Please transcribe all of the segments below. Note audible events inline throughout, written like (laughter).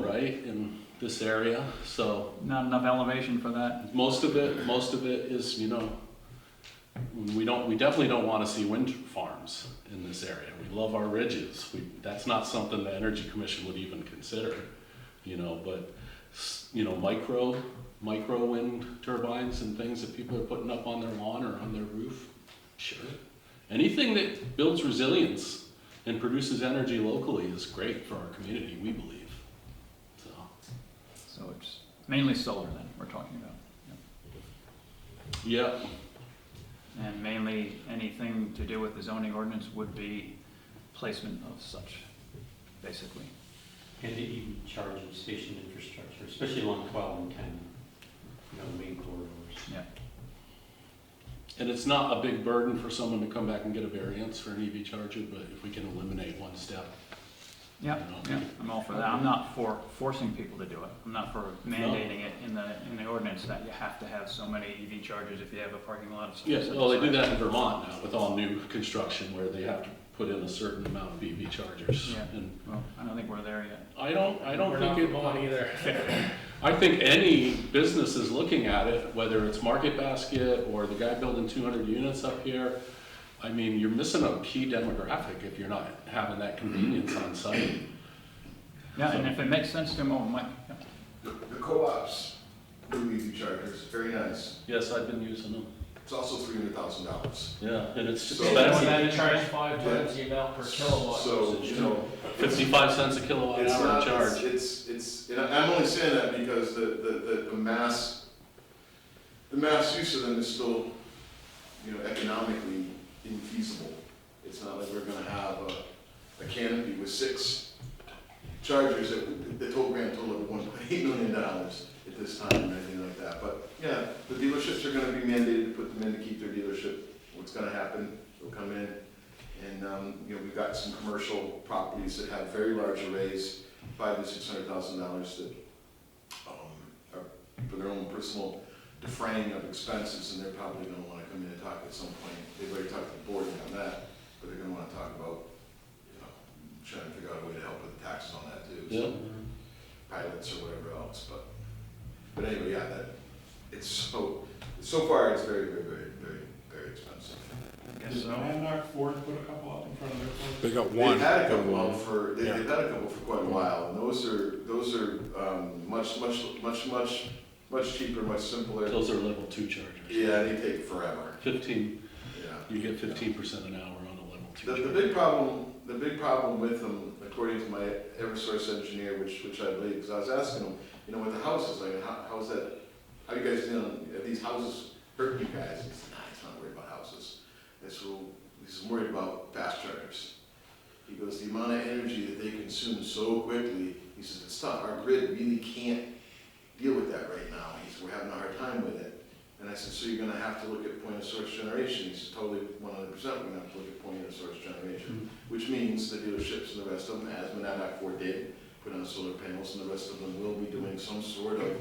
way in this area, so Not enough elevation for that. most of it, most of it is, you know, we don't, we definitely don't want to see wind farms in this area. We love our ridges. We, that's not something the Energy Commission would even consider, you know, but, s- you know, micro, micro wind turbines and things that people are putting up on their lawn or on their roof, sure. Anything that builds resilience and produces energy locally is great for our community, we believe, so. So it's mainly solar then we're talking about. Yep, And mainly anything to do with the zoning ordinance would be placement of such, basically. And the EV charging station infrastructure, especially along 12 and 10, you know, main corridors. And it's not a big burden for someone to come back and get a variance for an EV charger, but if we can eliminate one step. you Yeah, know. yeah, I'm all for that. I'm not for forcing people to do it. I'm not for mandating it in the, in the ordinance that you have to have so many EV chargers if you have a parking lot of. such- Yes, such well, they do size. that in Vermont now with all new construction where they have to put in a certain amount of EV chargers. Yeah. And Well, I don't think we're there yet. I don't, I don't We're think not it, Vermont either. (laughs) I think any business is looking at it, whether it's Market Basket or the guy building two hundred units up here. I mean, you're missing a key demographic if you're not having that convenience on site. Yeah, and if it makes sense to them, oh, my, yeah. The, the co-ops do EV chargers, very nice. Yes, I've been using them. It's also three hundred thousand dollars. Yeah, and it's So- expensive. They charge five times the amount per kilowatt. So, versus- you know, 55 cents a kilowatt it's hour not, it's, charge. it's, it's, and I- I'm only saying that because the, the, the, the mass, the mass use of them is still, you know, economically infeasible. It's not like we're gonna have a, a canopy with six chargers at, the total grand total of one (laughs) point eight million dollars at this time or anything like that. But, yeah, the dealerships are gonna be mandated to put them in to keep their dealership. What's gonna happen, they'll come in, and, um, you know, we've got some commercial properties that have very large arrays, five to six hundred thousand dollars that, um, are for their own personal defraying of expenses, and they're probably gonna wanna come in and talk at some point. They've already talked to the board on that, but they're gonna wanna talk about, you know, trying to figure out a way to help with the taxes on that too. so Yeah. Pilots or whatever else, but, but anyway, yeah, that, it's so, so far, it's very, very, very, very, very expensive. Yes, so. They got They've one. had a couple out for, they- Yeah. they've had a couple for quite a while, and those are, those are um, much, much, much, much, much cheaper, much simpler. Those are level two chargers. Yeah, they take forever, 15, yeah. you get 15% an hour on a level two. The, the charger. big problem, the big problem with them, according to my Eversource engineer, which, which I believe, because I was asking him, you know, with the houses, like, how, how's that, how you guys dealing, are these houses hurting you guys? He's like, nah, he's not worried about houses. It's, well, he's worried about fast chargers. He goes, the amount of energy that they consume so quickly, he says, it's not, our grid really can't deal with that right now. He says, we're having a hard time with it. And I said, so you're gonna have to look at point of source generation? He said, totally, one hundred percent, we're gonna have to look at point of source generation. Which means the dealerships and the rest of them, as Monadnock Ford did, put on solar panels, and the rest of them will be doing some sort of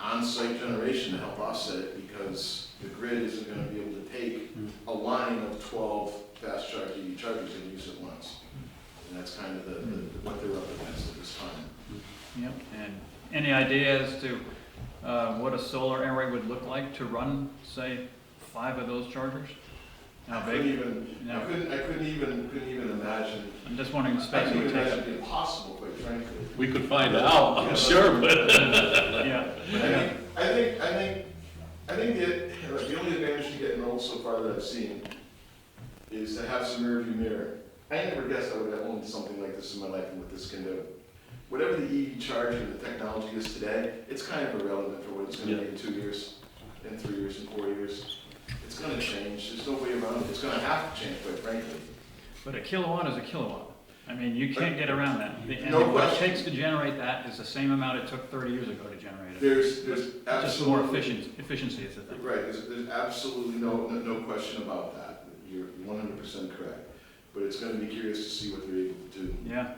on-site generation to help offset it, because the grid isn't gonna be able to take a line of twelve fast charge EV chargers and use it once. And that's kind of the, the- what they're up against at this time. Yep, and any idea as to uh, what a solar array would look like to run, say, five of those chargers? I How couldn't big? even, I No. couldn't, I couldn't even, couldn't even imagine I'm just wondering the I space it think would it take might up. be impossible, quite frankly. We could find out, I'm sure, but (laughs) Yeah, I think, I think, I think, I think the, the only advantage to getting old so far that I've seen is to have some rearview mirror. I never guessed I would have owned something like this in my life and what this can do. Whatever the E EV charger and the technology is today, it's kind of irrelevant for what it's gonna be in two years, in three years, in four years. It's gonna change, there's no way around it, it's gonna have to change, quite frankly. but a kilowatt is a kilowatt. I mean, you can't get around that. The- No And what it question. takes to generate that is the same amount it took thirty years ago to generate it. There's, there's Just more absolutely efficient, efficiency is the thing. Right, there's, there's absolutely no, no, no question about that. You're one hundred percent correct. But it's gonna be curious to see what they're able to do, Yeah,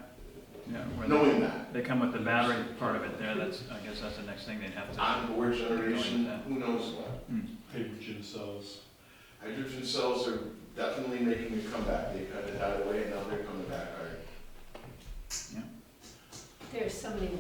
yeah, where they- knowing that. they come with the battery part of it there, that's, I guess that's the next thing they'd have to. Onboard generation, who knows what. Hydrogen cells. Hydrogen cells are definitely making a comeback. They kind of died away and now they're coming back, all right? There's so many